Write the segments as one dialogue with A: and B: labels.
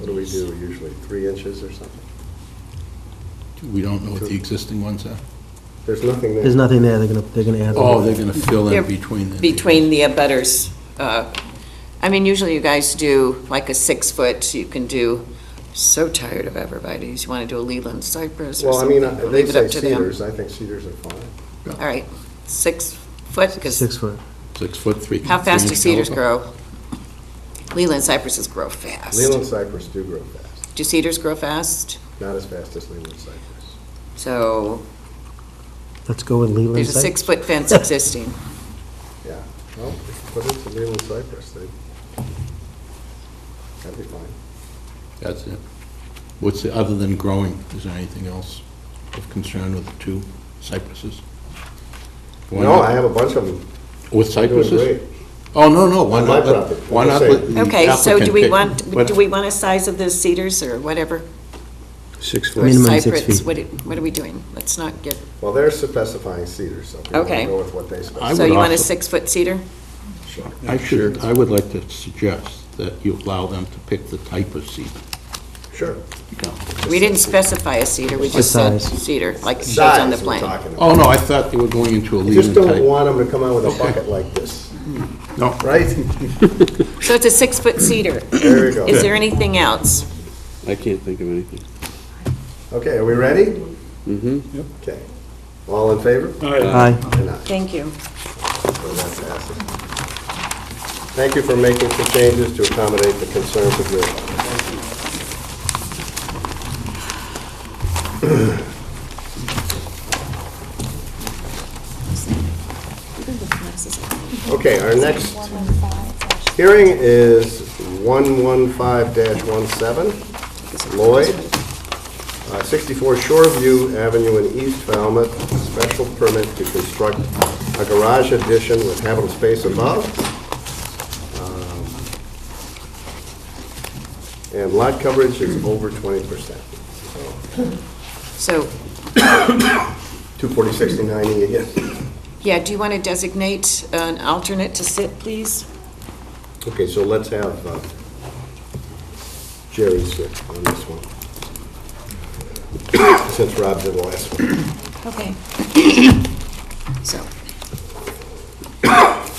A: we do usually, three inches or something?
B: We don't know what the existing ones are?
A: There's nothing there.
C: There's nothing there, they're gonna, they're gonna add.
B: Oh, they're going to fill
D: They're
B: in between the...
D: Between the abutters. uh, I mean, usually you guys do like a six-foot, you can do, so tired of everybody's, you want to do a Leland cypress or
A: Well, I
D: something.
A: mean, I- they
D: leave it
A: say
D: up to them.
A: cedars, I think cedars are fine.
D: All right, six foot,
C: Six
D: because
C: foot.
B: Six foot, three...
D: how fast do
B: three-inch
D: cedars
B: caliber.
D: grow? Leland cypresses grow fast.
A: Leland cypress do grow fast,
D: Do cedars grow fast?
A: not as fast as Leland cypress.
D: So
C: Let's go with Leland.
D: there's a
C: side.
D: six-foot fence existing.
A: Yeah, well, but it's a Leland cypress, they, that'd be fine.
B: That's it. What's, the other than growing, is there anything else of concern with the two cypresses? Why
A: No,
B: not-
A: I have a bunch of them,
B: With
A: they're doing
B: cypresses?
A: great.
B: Oh, no, no, why
A: On my
B: not, let-
A: property,
B: why
A: I'm
B: not
A: just
B: let
A: saying.
B: the
D: Okay, so do
B: applicant
D: we
B: pick-
D: want,
B: What-
D: do we want a size of the cedars or whatever?
E: Six
D: Or
E: foot.
C: Minimum six
D: cypress?
C: feet.
D: What do- what are we doing? Let's not get,
A: Well, they're specifying cedars, so we're
D: Okay.
A: gonna go with what they specify.
B: I
D: so
B: would
D: you want a
B: also-
D: six-foot cedar?
B: I should, I would like to suggest that you allow them to pick the type of cedar.
A: Sure.
B: you know.
D: We didn't specify a cedar, we just said
C: size.
D: cedar, like it shows on the
A: Size we're
D: plan.
A: talking about.
B: Oh, no, I thought they were going into a
A: I
B: leading
A: Just don't
B: type.
A: want them to come out with a bucket like this,
B: No,
A: right?
D: So it's a six-foot cedar.
A: There we go.
D: Is there anything else?
E: I can't think of anything.
A: Okay, are we ready? Mm-hmm. Okay. All in favor?
C: Aye.
A: And aye.
D: Thank you.
A: So that passes. Thank you for making some changes to accommodate the concerns of your Okay, our next hearing is 115-17, Lloyd, uh, 64 Shoreview Avenue in East Falmouth, special permit to construct a garage addition with habitable space above. Um, And lot coverage is over 20%.
D: So,
A: 240-60-90 again.
D: yeah, do you want to designate an alternate to sit, please?
A: Okay, so let's have uh, Jerry sit on this one. Since Rob did the last one.
D: Okay. So.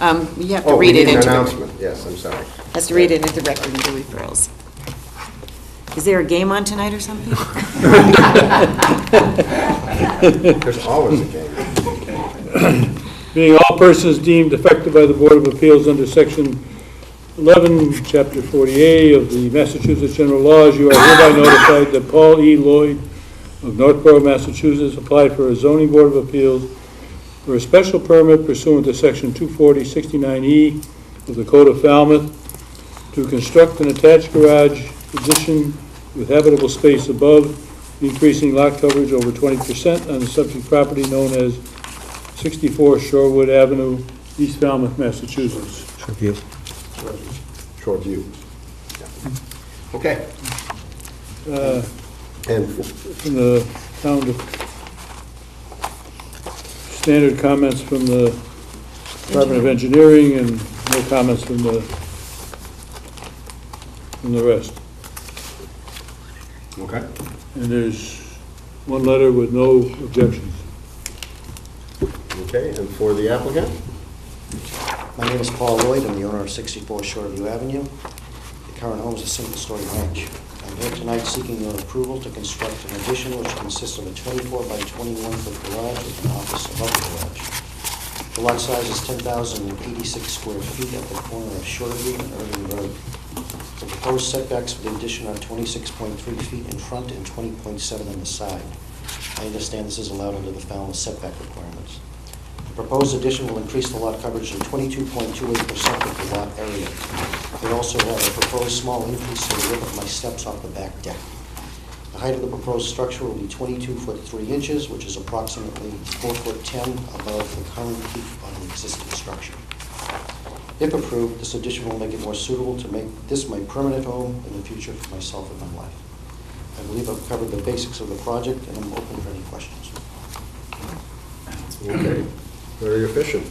D: Um, You have to
A: Oh, we
D: read it
A: need an
D: into the
A: announcement, yes, I'm sorry.
D: Has to read it into the record and do referrals. Is there a game on tonight or something?
A: There's always a game.
F: Being all persons deemed affected by the Board of Appeals under Section 11, Chapter 40A of the Massachusetts General Laws, you are hereby notified that Paul E. Lloyd of Northborough, Massachusetts, applied for a zoning Board of Appeals for a special permit pursuant to Section 240-69E E of the Code of Falmouth to construct an attached garage addition with habitable space above, increasing lot coverage over 20% on the subject property known as 64 Shorewood Avenue, East Falmouth, Massachusetts.
C: Tribute.
A: Short view. Okay.
F: Uh,
A: And
F: From the town, to- standard comments from the Department of Engineering and no comments from the, from the rest.
A: Okay.
F: And there's one letter with no objections.
A: Okay, and for the applicant?
G: My name is Paul Lloyd, I'm the owner of 64 Shoreview Avenue. The current home is a single-story ranch. I'm here tonight seeking your approval to construct an addition which consists of a 24 by 21 foot garage with an office above the garage. The lot size is 10,086 square feet at the corner of Shoreview and Irving Road. The proposed setbacks for the addition are 26.3 feet in front and 20.7 on the side. I understand this is allowed under the Falmouth setback requirements. The proposed addition will increase the lot coverage to 22.28% of the lot area. They also have a proposed small increase to the width of my steps off the back deck. The height of the proposed structure will be 22 foot 3 inches, which is approximately 4 foot 10 above the current peak on the existing structure. If approved, this addition will make it more suitable to make this my permanent home in the future for myself and my wife. I believe I've covered the basics of the project, and I'm open for any questions.
A: Okay. Very efficient.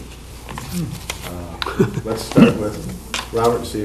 A: Uh, Let's start with Robert, see